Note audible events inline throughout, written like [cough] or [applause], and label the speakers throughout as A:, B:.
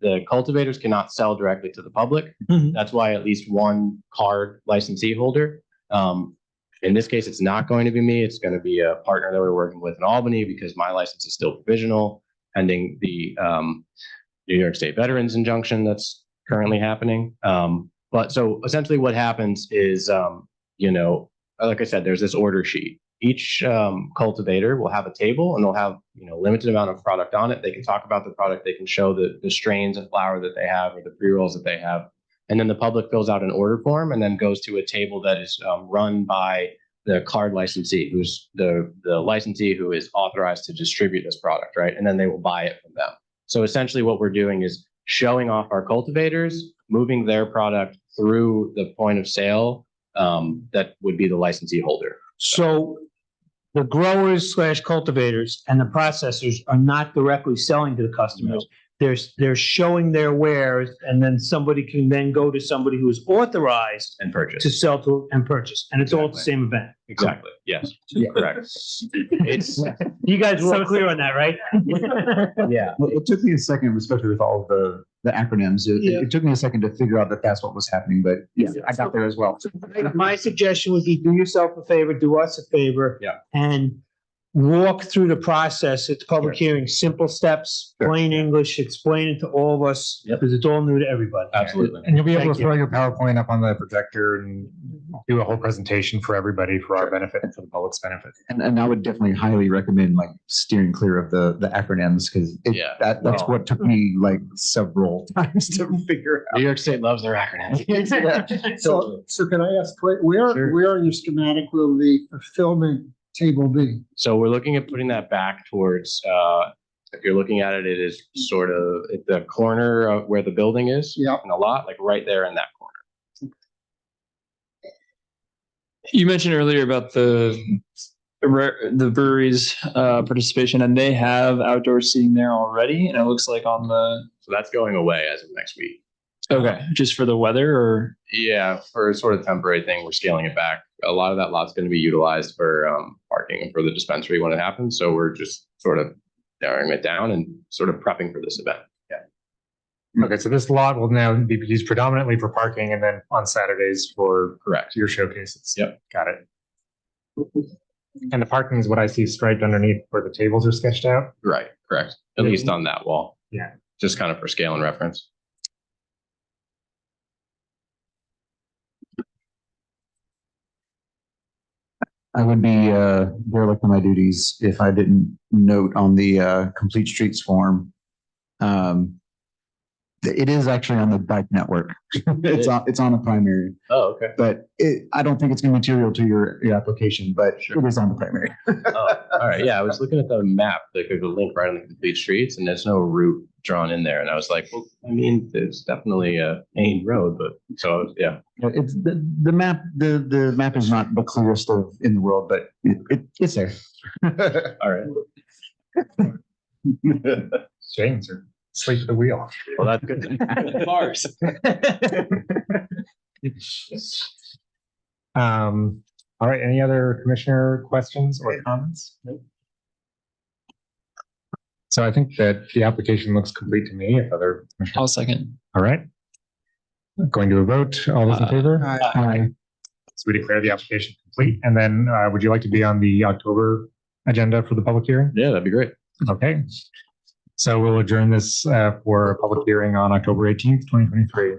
A: the cultivators cannot sell directly to the public.
B: Mhm.
A: That's why at least one card licensee holder. Um, in this case, it's not going to be me. It's going to be a partner that we're working with in Albany because my license is still provisional pending the, um, New York State Veterans injunction that's currently happening. Um, but so essentially what happens is, um, you know, like I said, there's this order sheet. Each um, cultivator will have a table and they'll have, you know, limited amount of product on it. They can talk about the product. They can show the, the strains of flour that they have or the pre-rolls that they have. And then the public fills out an order form and then goes to a table that is um, run by the card licensee, who's the, the licensee who is authorized to distribute this product, right? And then they will buy it from them. So essentially what we're doing is showing off our cultivators, moving their product through the point of sale um, that would be the licensee holder.
B: So the growers slash cultivators and the processors are not directly selling to the customers. They're, they're showing their wares and then somebody can then go to somebody who is authorized
A: And purchase.
B: to sell to and purchase. And it's all at the same event.
A: Exactly. [laughs] Yes.
C: Yeah.
A: Correct. It's,
B: You guys were all clear on that, right?
A: [laughs] yeah.
C: Well, it took me a second, especially with all of the, the acronyms. It,
B: Yeah.
C: it took me a second to figure out that that's what was happening, but yeah,
B: Yeah.
C: I got there as well.
B: [laughs] My suggestion would be do yourself a favor, do us a favor.
A: Yeah.
B: And walk through the process. It's public hearing, simple steps,
C: Sure.
B: plain English, explain it to all of us
A: Yep.
B: because it's all new to
A: [laughs]
B: everybody.
A: Absolutely.
D: And you'll be able
B: Thank
D: to
B: you.
D: throw your PowerPoint up on the projector and do a whole presentation for everybody for our benefit and for the public's benefit.
C: And, and I would definitely highly recommend like steering clear of the, the acronyms because
A: Yeah.
C: that, that's what took me like several [laughs] times to figure
A: New York State loves their acronyms.
C: out.
E: So, so can I ask, where, where
A: Sure.
E: where in your schematic will the fulfillment table be?
A: So we're looking at putting that back towards, uh, if you're looking at it, it is sort of at the corner of where the building is.
E: Yep.
A: And a lot, like right there in that corner.
F: You mentioned earlier about the the brewery's uh, participation, and they have outdoor seating there already. And it looks like on the
A: So that's going away as of next week.
F: okay, just for the weather, or
A: Yeah, for a sort of temporary thing, we're scaling it back. A lot of that lot's going to be utilized for um, parking and for the dispensary when it happens. So we're just sort of narrowing it down and sort of prepping for this event. Mm-hmm.
D: Okay, so this lot will now be used predominantly for parking and then on Saturdays for
A: Correct.
D: your showcases.
A: Yep.
D: Got it. And the parking is what I see striped underneath where the tables are sketched out.
A: Right. Correct. At least on that wall.
D: Yeah.
A: Just kind of for scale and reference.
C: I would be uh, derelict in my duties if I didn't note on the uh, Complete Streets form. Um, th- it is actually on the bike network.
A: [laughs]
C: it's on it's on the primary,
A: Oh, okay.
C: but it, I don't think it's going to be material to your, your application, but
A: Sure.
C: it is on the primary.
A: Oh, all right. Yeah, I was looking at the map, like the link right on the complete streets, and there's no route drawn in there. And I was like, well, I mean, there's definitely a main road, but so yeah,
C: You know, It's the, the map. The the map is not the clearest of in the world, but it, it, it's
D: [laughs]
C: there.
A: all right.
C: [laughs]
D: James, or sleep at the wheel.
A: Well, that's good.
F: Mars.
D: Um, all right, any other commissioner questions or comments? So I think that the application looks complete to me, if other, commissioners-
F: I'll second.
D: all right. Going to a vote, all
A: Uh,
D: those in favor? Aye. So we declare the application complete, and then, uh, would you like to be on the October agenda for the public hearing?
A: Yeah, that'd be great.
D: Okay. So we'll adjourn this, uh, for a public hearing on October eighteenth, twenty twenty-three.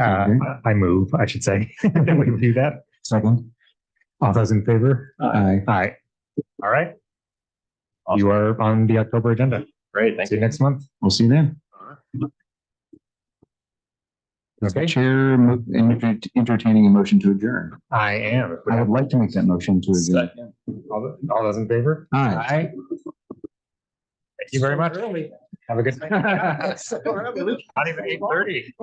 D: Uh,
C: Okay.
D: I move, I should say, [laughs] that we do that.
C: Second.
D: All those in favor?
C: Aye.
D: Aye. All right. You are on the October agenda.
A: Great. Thank
D: See
A: you.
D: you next month.
C: We'll see you then.
D: Okay,
C: Chair mo- enter- entertaining a motion to adjourn.
D: I am.
C: I would like to make that motion to adjourn.
F: Second.
D: All all those in favor?
C: Aye.
D: Aye. Thank [laughs] you very much. Have a good night. Not even eight thirty.